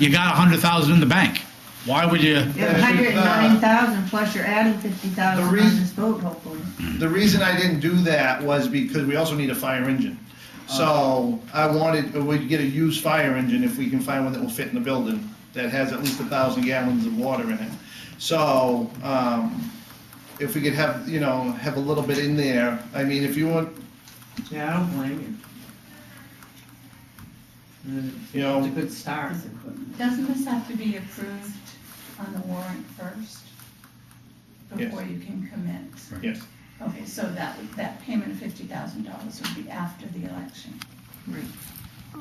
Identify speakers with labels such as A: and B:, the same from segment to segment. A: you got a hundred thousand in the bank. Why would you?
B: Yeah, if, uh,
C: hundred and nine thousand plus you're adding fifty thousand
B: The
C: on
B: reason-
C: this boat hopefully.
B: The reason I didn't do that was because we also need a fire engine. So I wanted, we'd get a used fire engine if we can find one that will fit in the building, that has at least a thousand gallons of water in it. So, um, if we could have, you know, have a little bit in there, I mean, if you want,
D: Yeah, I don't blame you.
B: you
D: It's a
B: know,
D: good start.
E: Doesn't this have to be approved on the warrant first?
B: Yes.
E: Before you can commit?
B: yes.
E: Okay, so that, that payment of fifty thousand dollars would be after the election.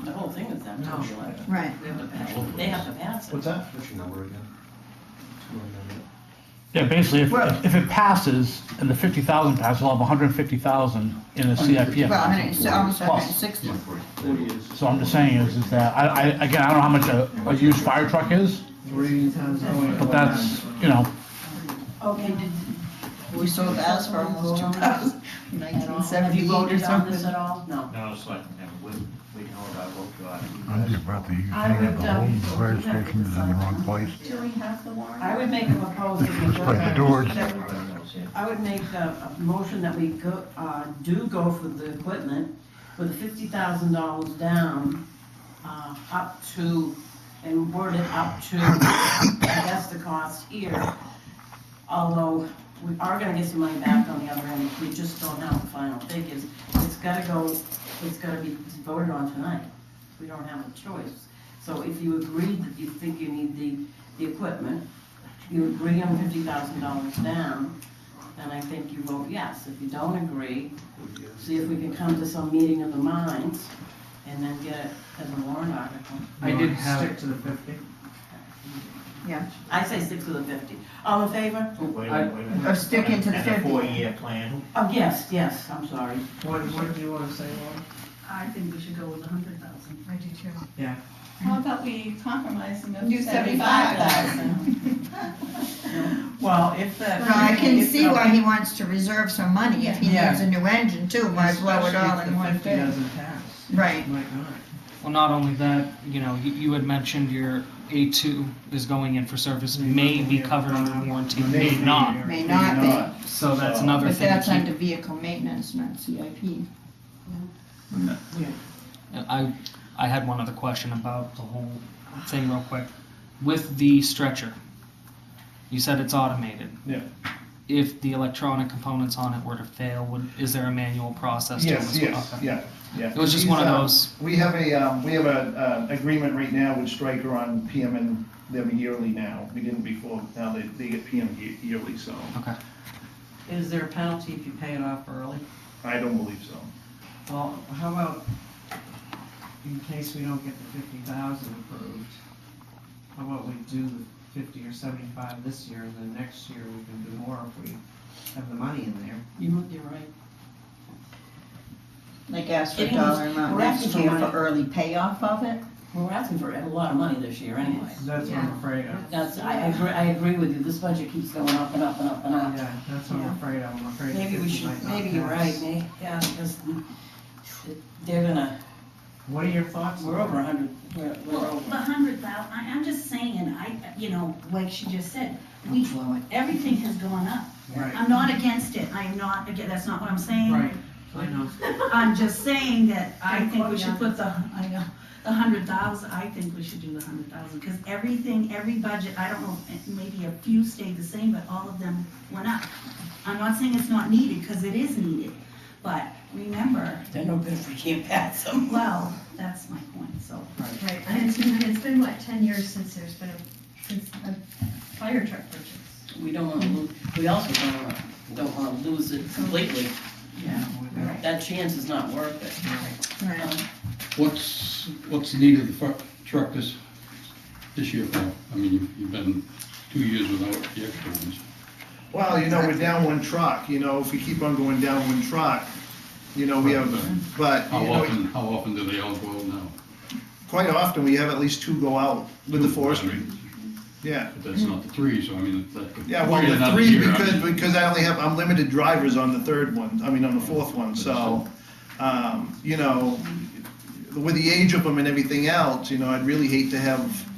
F: The whole thing is after
D: No.
F: the election.
C: Right.
F: They have to pass it. They have to pass it.
B: What's that?
G: What's your number again?
H: Yeah, basically, if, if it passes and the fifty thousand passes, we'll have a hundred and fifty thousand in the CIP.
C: Well, hundred, and- almost
H: Plus.
C: hundred and sixty.
H: So I'm just saying is, is that, I, I, again, I don't know how much a, a used fire truck is,
B: Three times.
H: but that's, you know,
C: Okay. We sold the house for almost two thousand, nineteen
F: Have you
C: seventy-eight or
F: voted on this
C: something.
F: at all? No.
G: No, it's like, we, we know what I vote for.
I: I'm just about to, you
F: I
I: think that the
F: would, um,
I: whole fire station is in the wrong place.
E: Do we have the warrant?
F: I would make a proposal. that we go
I: Like the
F: back-
I: doors.
F: that we- I would make a, a motion that we go, uh, do go for the equipment with fifty thousand dollars down, uh, up to, and word it up to, I guess the cost here. Although, we are gonna get some money back on the other end, we just don't have the final figures. It's gotta go, it's gotta be voted on tonight, we don't have a choice. So if you agree that you think you need the, the equipment, you agree on fifty thousand dollars down, and I think you vote yes. If you don't agree, see if we can come to some meeting of the minds and then get it as a warrant article.
D: I did have. Stick to the fifty.
F: I say stick to the fifty. All in favor?
G: Wait, wait, wait.
C: Or stick into the
G: And a
C: 50.
G: four-year plan.
F: Oh, yes, yes, I'm sorry.
D: What, what do you wanna say, Laura?
F: I think we should go with a hundred thousand.
C: I do too.
E: How about we compromise and
C: Do
E: do seventy-five thousand?
D: Well, if that.
C: No, I can see why he wants to reserve some money if he
D: Yeah.
C: needs a new engine too, why blow it all in one
D: Especially if the fifty
C: day?
D: doesn't pass,
C: Right,
D: might not.
J: Well, not only that, you know, you, you had mentioned your A2 is going in for service, may be covered under warranty, may not.
C: may not be,
J: So that's another
C: but
J: thing
C: that's
J: to
C: under vehicle maintenance, not CIP.
J: keep. I, I had one other question about the whole thing real quick. With the stretcher, you said it's automated.
B: Yeah.
J: If the electronic components on it were to fail, would, is there a manual process to it?
B: Yes,
J: as well?
B: yes,
J: Okay.
B: yeah, yeah.
J: It was just one of
B: These, um,
J: those.
B: We have a, um, we have a, uh, agreement right now with Stryker on PM and them yearly now. We didn't before, now they, they get PM ye- yearly, so
J: Okay.
D: Is there a penalty if you pay it off early?
B: I don't believe so.
D: Well, how about, in case we don't get the fifty thousand approved, how about we do the fifty or seventy-five this year, and then next year we can do more if we have the money in there?
F: You, you're right.
C: Like ask for a
F: Getting these-
C: dollar amount
F: we're
C: next
F: asking
C: year
F: for
C: for
F: money.
C: early payoff of it.
F: We're asking for a lot of money this year anyway.
D: That's what I'm afraid of.
F: That's, I agree, I agree with you. This budget keeps going up and up and up and up.
D: Yeah, that's what I'm afraid of, I'm afraid.
F: Maybe we
D: it
F: should,
D: might not
F: maybe you're
D: pass.
F: right, Nate, yeah, because they're gonna,
D: What are your thoughts?
F: we're over a hundred, we're, we're
K: Well, the
F: over.
K: hundred thousand, I, I'm just saying, I, you know, like she just said, we, everything has gone up.
D: Right,
K: I'm not against it, I'm not, again, that's not what I'm saying.
D: right, I know.
K: I'm just saying that I
F: Don't
K: think
F: quote
K: we
F: me
K: should
F: on
K: put the, I know, the hundred thousand, I think we should do the hundred thousand, because everything, every budget, I don't know, eh, maybe a few stayed the same, but all of them went up. I'm not saying it's not needed, because it is needed, but remember,
F: They're no good if we can't pass them.
K: well, that's my point, so.
C: Right, and it's been, it's been what, ten years since there's been a, since a fire truck purchase?
F: We don't wanna lose, we also don't wanna, don't wanna lose it completely.
D: Yeah, we're there.
F: That chance is not worth it.
C: Right,
L: What's, what's the need of the fir- truck this, this year, Paul? I mean, you've- you've been two years without the extra ones.
B: Well, you know, we're down one truck, you know, if we keep on going down one truck, you know, we have, but,
L: How
B: you know,
L: often, how often do they all go out now?
B: quite often, we have at least two go out with the
L: I
B: forestry,
L: mean,
B: yeah.
L: But that's not the three, so I mean, that could.
B: Yeah, well,
L: be
B: the
L: another
B: three,
L: year, I
B: because,
L: mean.
B: because I only have, I'm limited drivers on the third one, I mean, on the fourth one, so, um, you know, with the age of them and everything else, you know, I'd really hate to have